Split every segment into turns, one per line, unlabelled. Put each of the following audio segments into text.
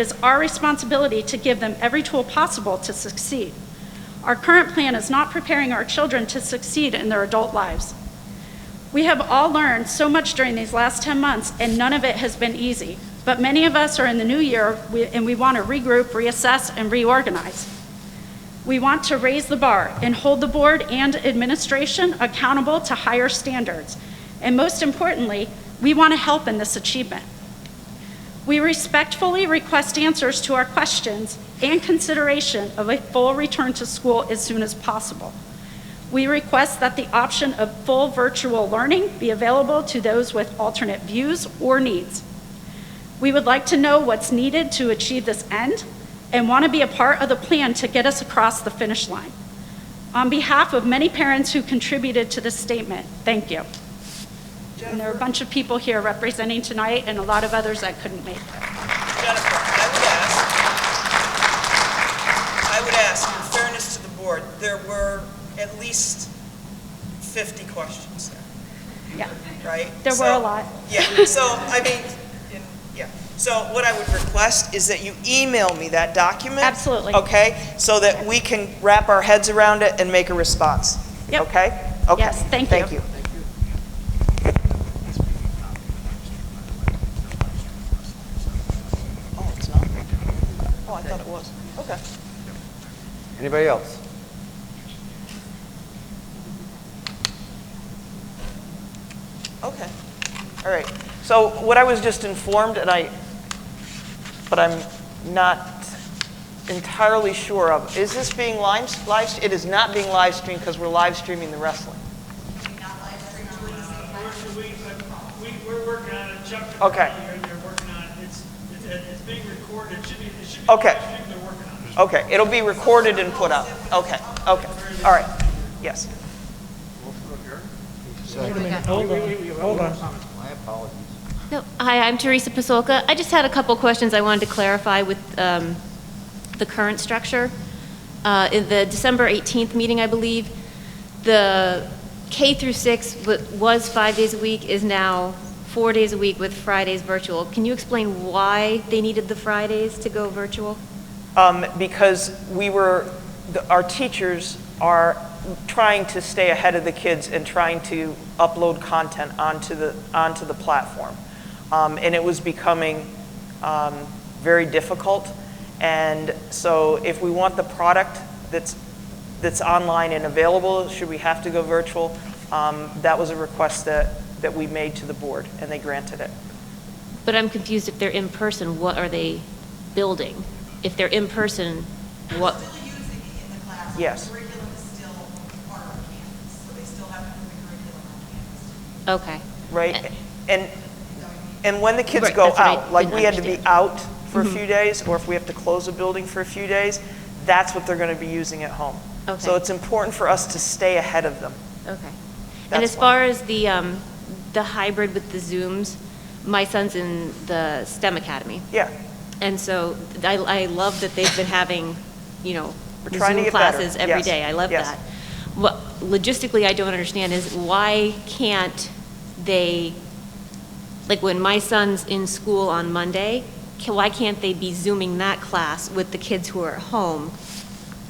It is our responsibility to give them every tool possible to succeed. Our current plan is not preparing our children to succeed in their adult lives. We have all learned so much during these last 10 months, and none of it has been easy. But many of us are in the new year, we- and we want to regroup, reassess, and reorganize. We want to raise the bar and hold the board and administration accountable to higher standards. And most importantly, we want to help in this achievement. We respectfully request answers to our questions and consideration of a full return to school as soon as possible. We request that the option of full virtual learning be available to those with alternate views or needs. We would like to know what's needed to achieve this end and want to be a part of the plan to get us across the finish line. On behalf of many parents who contributed to this statement, thank you. And there are a bunch of people here representing tonight and a lot of others that couldn't make it.
Jennifer, I would ask, I would ask, in fairness to the board, there were at least 50 questions there,
Yeah,
right?
There were a
So-
lot.
Yeah, so, I mean, in- yeah. So what I would request is that you email me that document.
Absolutely.
Okay? So that we can wrap our heads around it and make a response.
Yep.
Okay? Okay.
Yes, thank you.
Thank you. Oh, it's not? Oh, I thought it was. Okay.
Anybody else?
Okay, all right. So what I was just informed, and I, but I'm not entirely sure of, is this being live, live, it is not being live streamed because we're live streaming the wrestling.
We're, we, we're working on it, Chuck. and
Okay.
Bonnie are- They're working on it, it's, it- it's being recorded, it should be, it should be.
Okay.
I think They're working on it.
Okay, it'll be recorded and put up. Okay, okay, all right, yes.
No, hi, I'm Teresa Pasolka. I just had a couple questions I wanted to clarify with um, the current structure. Uh, In the December 18th meeting, I believe, the K through 6 wa- was five days a week, is now four days a week with Fridays virtual. Can you explain why they needed the Fridays to go virtual?
Um, Because we were, the- our teachers are trying to stay ahead of the kids and trying to upload content onto the, onto the platform. Um, And it was becoming um, very difficult. And so if we want the product that's, that's online and available, should we have to go virtual? Um, That was a request that, that we made to the board, and they granted it.
But I'm confused, if they're in person, what are they building? If they're in person, what?
Still using it in the class.
Yes.
The Curriculum is still part of Canvas, so they still have to move the curriculum on Canvas.
Okay.
right? And, and when the kids
Right,
go
that's what I
out, like
didn't
we had to be
understand. Mm-hmm.
out for a few days, or if we have to close a building for a few days, that's what they're going to be using at home. So
Okay.
it's important for us to stay ahead of them.
Okay.
That's
And as
one.
far as the, um, the hybrid with the Zooms, my son's in the STEM Academy.
Yeah,
And so I, I love that they've been having, you know,
We're trying to
Zoom
get better.
classes every
Yes,
day. I love
yes.
that. What logistically I don't understand is why can't they, like when my son's in school on Monday, ca- why can't they be Zooming that class with the kids who are at home?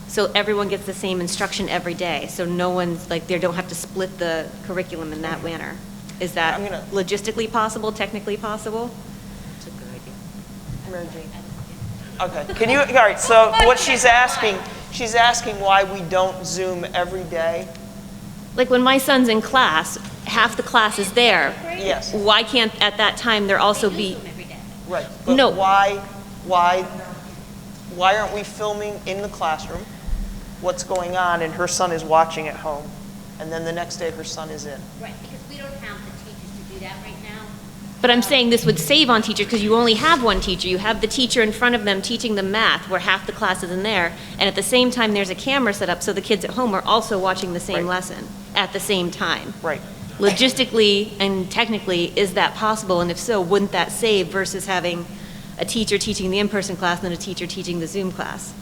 So everyone gets the same instruction every day, so no one's, like, they don't have to split the curriculum in that manner. Is that
I'm gonna-
logistically possible, technically possible?
okay. Can you, all right, so what she's asking, she's asking why we don't Zoom every day.
Like when my son's in class, half the class is there.
Yes.
Why can't, at that time, there also be,
Right. But
No.
why, why, why aren't we filming in the classroom what's going on, and her son is watching at home, and then the next day her son is in?
Right, because we don't have the teachers to do that right now.
but I'm saying this would save on teachers because you only have one teacher. You have the teacher in front of them teaching them math where half the class is in there. And at the same time, there's a camera set up so the kids at home are also watching the
Right.
same lesson at the same time.
Right.
Logistically and technically, is that possible? And if so, wouldn't that save versus having a teacher teaching the in-person class and then a teacher teaching the Zoom class?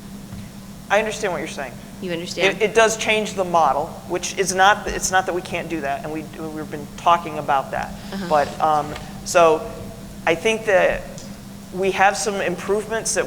I understand what you're saying.
You understand?
It, it does change the model, which is not, it's not that we can't do that, and we, we've been talking about that. But, um, so, I think that we have some improvements that